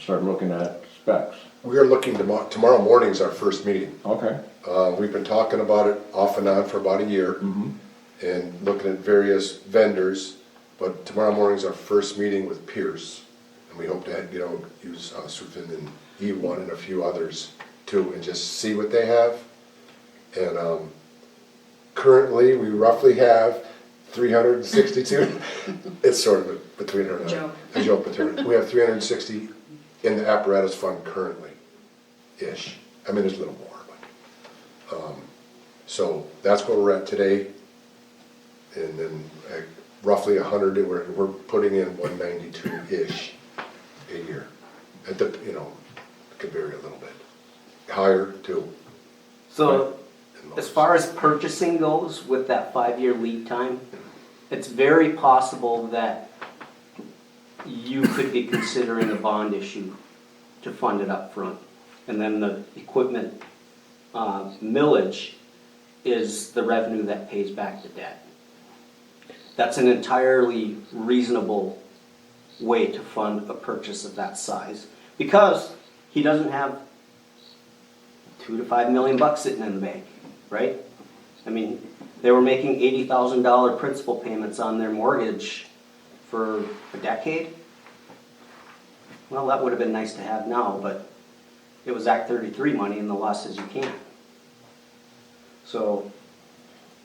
start looking at specs. We are looking tomorrow, tomorrow morning's our first meeting. Okay, Uh, we've been talking about it off and on for about a year. And looking at various vendors, but tomorrow morning's our first meeting with Pierce. And we hope to, you know, use uh, Sufin and E one and a few others too, and just see what they have. And, um, currently, we roughly have three hundred and sixty-two, it's sort of a- between her and I. Joke. A joke between, her. we have three hundred and sixty in the apparatus fund currently ish. I mean, there's a little more, but, um, so that's where we're at today. And then uh, roughly a hundred, we're, we're putting in one ninety-two-ish a year. At the, you know, it could vary a little bit, higher too. So, and as lowest. far as purchasing goes, with that five-year lead time, it's very possible that you could be considering a bond issue to fund it up front, And then the equipment uh, millage is the revenue that pays back the debt. That's an entirely reasonable way to fund a purchase of that size, because he doesn't have two to five million bucks sitting in the bank, right? I mean, they were making eighty thousand dollar principal payments on their mortgage for a decade. Well, that would have been nice to have now, but it was Act thirty-three money and the law says you can't. So,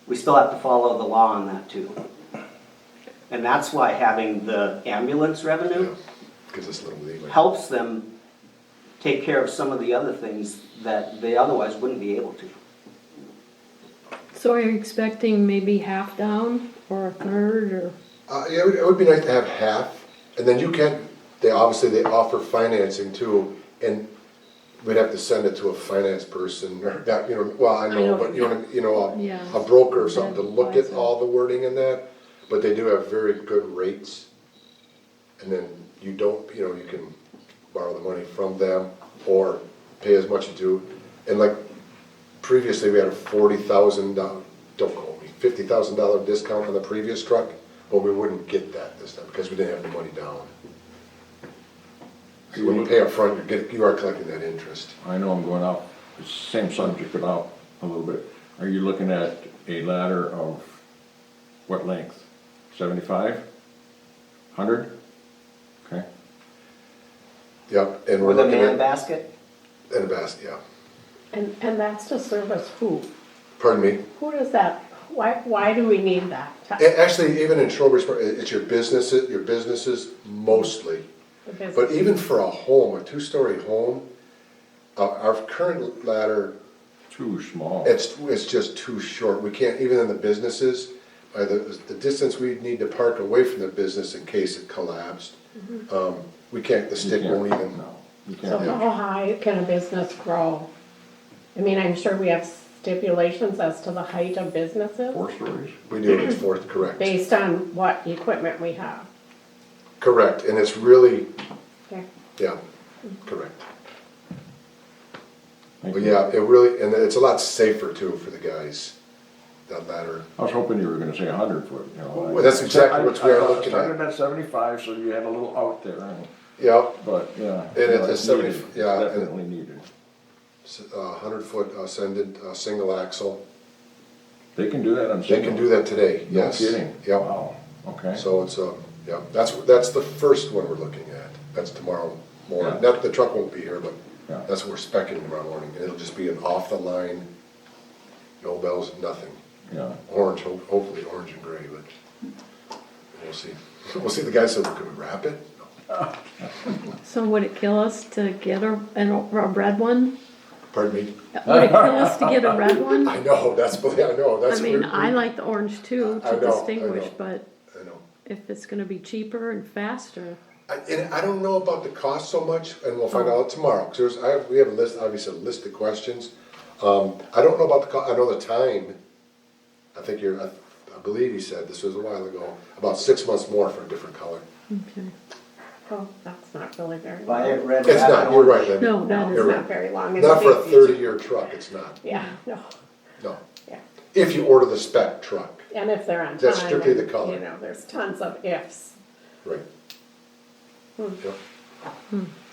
we still have to follow the law on that too. And that's why having the ambulance Yeah, revenue Gives us a little leeway. helps them take care of some of the other things that they otherwise wouldn't be able to. So are you expecting maybe half down or a third or? Uh, yeah, it would, it would be nice to have half, and then you can, they, obviously, they offer financing too, and we'd have to send it to a finance person, or that, you know, well, I know, know. but you know, you know, Yeah. a- a broker or something, to An look at advisor. all the wording in that, but they do have very good rates. And then you don't, you know, you can borrow the money from them, or pay as much as you do, and like, previously, we had a forty thousand dollar, don't quote me, fifty thousand dollar discount on the previous truck, but we wouldn't get that this time, because we didn't have the money down. So When you pay upfront, you get, you are collecting that interest. I know I'm going off, same subject, but out a little bit. Are you looking at a ladder of what length? Seventy-five? Hundred? Okay, Yep, and we're With a looking man at, basket? and a basket, yeah, And, and that's to service who? pardon me. Who does that, why, why do we need that? A- Actually, even in Trowbridge, it's your businesses, your businesses mostly. Because- But even for a home, a two-story home, uh, our current ladder too small. It's, it's just too short, we can't, even in the businesses, uh, the, the distance we need to park away from the business in case it collapsed, um, we can't, the You stick can't- won't even, No, you So can't. how high can a business grow? I mean, I'm sure we have stipulations as to the height of businesses Four stories? we do it fourth, correct. based on what equipment we have. Correct, and it's really, Okay. yeah, correct. Thank But you. yeah, it really, and it's a lot safer too for the guys, that ladder. I was hoping you were gonna say a hundred foot, you know. Well, that's exactly what we are I- I thought it looking at. Started at seventy-five, so you had a little out there, and- Yep, but, yeah. And it's no, a 70 needed. It's yeah, and- Definitely needed. a hundred-foot ascendant, uh, single axle, They can do that on they single? can do that today, No yes. kidding? Yep. Wow, okay. So it's, uh, yeah, that's, that's the first one we're looking at, that's tomorrow morning, Yeah. not, the truck won't be here, but Yeah. that's what we're specking tomorrow morning, it'll just be an off-the-line, no bells, nothing, Yeah. orange, ho- hopefully orange and gray, but we'll see. We'll see, the guy said, can we wrap it? No. So would it kill us to get a, an, a red one? Pardon me? Would it kill us to get a red one? I know, that's, I know, I that's. mean, we- I like the orange too I to know, I distinguish, know. but I know. if it's gonna be cheaper and faster, I- And I don't know about the cost so much, and we'll find out tomorrow, because there's, I have, we have a list, obviously a list of questions. Um, I don't know about the co, I know the time, I think you're, I I believe you said, this was a while ago, about six months more for a different color. okay. Oh, that's not really very Buy long. it red. It's not, you're right, Lynn. No, that You're is right. Not very long. It's Not for a big. thirty-year truck, it's not, Yeah, no, no. yeah. If you order the spec truck, And if they're on time. That's strictly and, the color. You know, there's tons of ifs. right. Yep.